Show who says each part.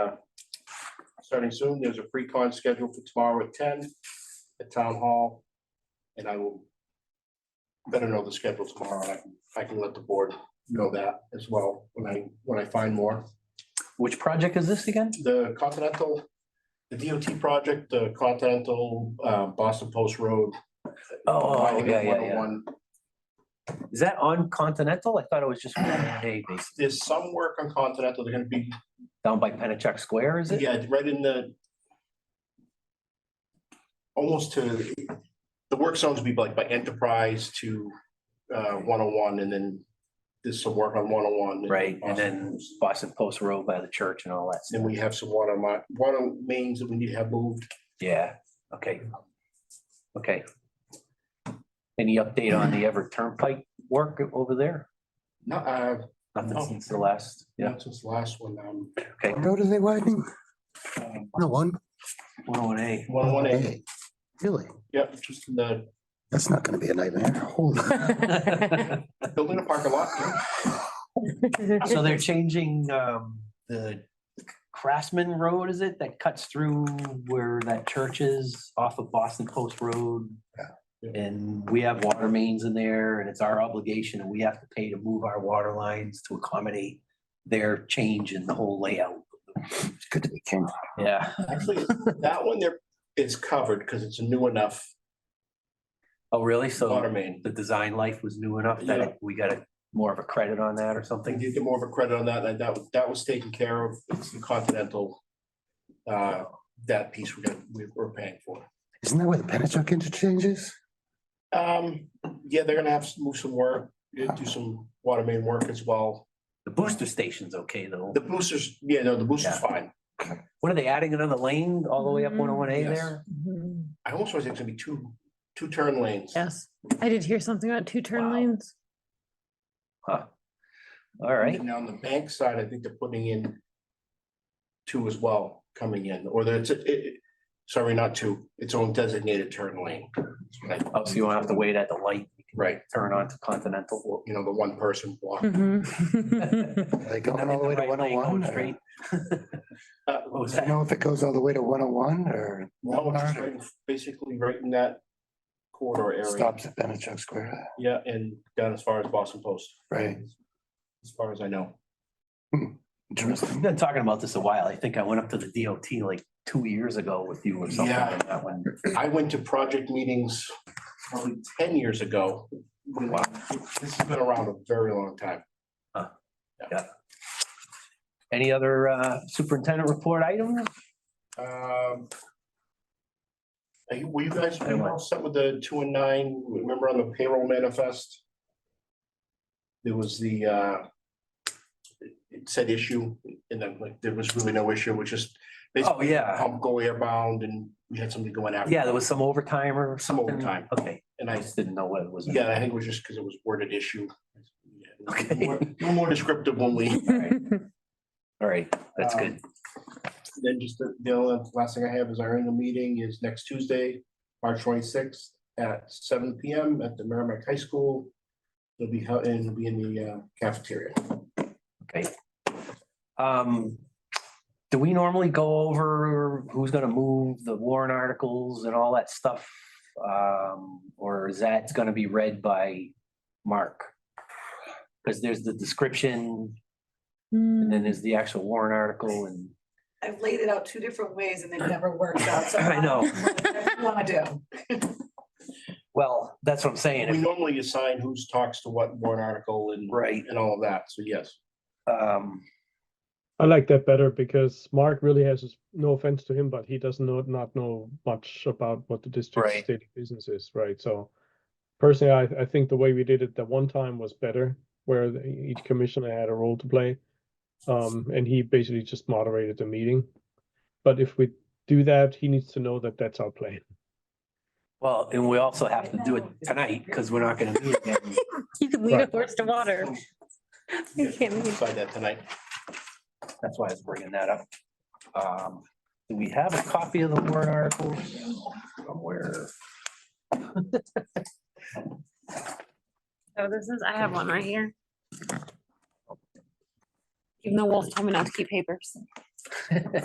Speaker 1: starting soon. There's a pre-con scheduled for tomorrow at ten at Town Hall. And I will better know the schedule tomorrow. I can, I can let the board know that as well when I, when I find more.
Speaker 2: Which project is this again?
Speaker 1: The Continental, the DOT project, the Continental, uh, Boston Post Road.
Speaker 2: Oh,
Speaker 1: widening
Speaker 2: yeah,
Speaker 1: of
Speaker 2: yeah, yeah.
Speaker 1: 101.
Speaker 2: Is that on Continental? I thought it was just one day basically,
Speaker 1: There's some work on Continental. They're gonna be
Speaker 2: down by Pennachuck Square, is it?
Speaker 1: Yeah, it's right in the. Almost to, the work zones would be like by Enterprise to uh one oh one and then there's some work on one oh one.
Speaker 2: Right, and then Boston Post Road by the church and all that. stuff.
Speaker 1: Then we have some water my, water mains that we need to have moved.
Speaker 2: Yeah, okay. Okay. Any update on the Everett Turnpike work over there?
Speaker 1: Not, uh,
Speaker 2: Nothing
Speaker 1: No.
Speaker 2: since the last, yeah,
Speaker 1: not since the last one, um,
Speaker 2: okay.
Speaker 3: Road are they widening? No, one.
Speaker 2: One oh one A.
Speaker 1: one oh one A,
Speaker 3: Hey, Really?
Speaker 1: yep, just in the
Speaker 3: That's not gonna be a nightmare. Holy.
Speaker 1: building a parking lot.
Speaker 2: So they're changing um the Craftsman Road, is it, that cuts through where that church is off of Boston Post Road? And we have water mains in there and it's our obligation and we have to pay to move our water lines to accommodate their change in the whole layout.
Speaker 3: It's good to be king.
Speaker 2: Yeah.
Speaker 1: Actually, that one there, it's covered because it's a new enough
Speaker 2: Oh, really? So
Speaker 1: water main.
Speaker 2: the design life was new enough that
Speaker 1: Yeah.
Speaker 2: it- we got a more of a credit on that or
Speaker 1: I
Speaker 2: something?
Speaker 1: did get more of a credit on that, and that, that was taken care of, it's the Continental. Uh, that piece we're, gonna- we- we're paying for.
Speaker 3: Isn't that where the Pennachuck interchange is?
Speaker 1: Um, yeah, they're gonna have to move some work, do some water main work as well.
Speaker 2: The booster station's okay though.
Speaker 1: The boosters, yeah, no, the booster's fine.
Speaker 2: What are they adding another lane all the way up
Speaker 4: Mhm.
Speaker 2: one oh one A
Speaker 1: Mm, Yes.
Speaker 2: there?
Speaker 1: I almost was, it's gonna be two, two turn lanes.
Speaker 4: Mm-hmm. Yes, I did hear something about two turn
Speaker 2: Wow.
Speaker 4: lanes.
Speaker 2: Huh. All right.
Speaker 1: And on the bank side, I think they're putting in two as well coming in, or there's, it, it, sorry, not two, its own designated turn lane. That's what I-
Speaker 2: Oh, so you won't have to wait at the light,
Speaker 1: Right,
Speaker 2: turn onto Continental.
Speaker 1: you know, the one person block.
Speaker 4: Hmm. Mhm.
Speaker 3: Are they going all the way to one oh one? I
Speaker 1: Uh,
Speaker 2: What was
Speaker 3: don't
Speaker 2: that?
Speaker 3: know if it goes all the way to one oh one or
Speaker 1: No, it's just
Speaker 3: Walmart
Speaker 1: right in- basically right in that corridor
Speaker 3: or
Speaker 1: area.
Speaker 3: stops at Pennachuck Square,
Speaker 1: Yeah, and down as far as Boston Post,
Speaker 3: right?
Speaker 1: as far as I know.
Speaker 3: Interesting.
Speaker 2: We've been talking about this a while. I think I went up to the DOT like two years ago with you or something
Speaker 1: Yeah.
Speaker 2: like that one.
Speaker 1: I went to project meetings probably ten years ago.
Speaker 2: Wow.
Speaker 1: This has been around a very long time.
Speaker 2: Any other uh, superintendent report items?
Speaker 1: Um. are you- Were you guys, were you
Speaker 2: Anyway.
Speaker 1: all set with the two and nine, remember on the payroll manifest? There was the, uh. it- It said issue, and then like, there was really no issue, which is basically
Speaker 2: Oh, yeah.
Speaker 1: pump go airbound and we had somebody going after.
Speaker 2: Yeah, there was some overtime or
Speaker 1: Some
Speaker 2: something.
Speaker 1: overtime.
Speaker 2: Okay,
Speaker 1: And
Speaker 2: I
Speaker 1: I,
Speaker 2: just didn't know what it was.
Speaker 1: yeah, I think it was just because it was worded issue.
Speaker 2: Okay.
Speaker 1: More- we're more descriptive when we,
Speaker 2: All right, that's
Speaker 1: Um,
Speaker 2: good.
Speaker 1: then just the, the only last thing I have is our annual meeting is next Tuesday, March twenty-sixth at seven P M at the Merrimack High School. It'll be held, and it'll be in the uh, cafeteria.
Speaker 2: Okay. Um, do we normally go over who's gonna move the warrant articles and all that stuff? Um, or is that gonna be read by Mark? Cause there's the description and then
Speaker 4: Mm.
Speaker 2: there's the actual warrant article and,
Speaker 5: I've laid it out two different ways and it never worked out. so
Speaker 2: I know.
Speaker 5: Whatever you Wanna do.
Speaker 2: well, that's what I'm saying.
Speaker 1: We
Speaker 2: if-
Speaker 1: normally assign who's talks to what warrant article and,
Speaker 2: Right,
Speaker 1: and all of that, so yes.
Speaker 2: um,
Speaker 6: I like that better because Mark really has his- no offense to him, but he does not not know much about what the
Speaker 2: Right.
Speaker 6: district's daily business is, right? So personally, I, I think the way we did it that one time was better, where the- each commissioner had a role to play. Um, and he basically just moderated the meeting. But if we do that, he needs to know that that's our plan.
Speaker 2: well, and we also have to do it tonight, cause we're not gonna meet again.
Speaker 4: You could lead a
Speaker 6: Right.
Speaker 4: horse to water. You
Speaker 1: Yes,
Speaker 4: can't
Speaker 1: we'll
Speaker 4: lead.
Speaker 1: Decide that tonight.
Speaker 2: That's why I was bringing that up. Um, do we have a copy of the warrant article somewhere?
Speaker 4: Oh, this is, I have one right here. Even though Wolf told me not to keep papers.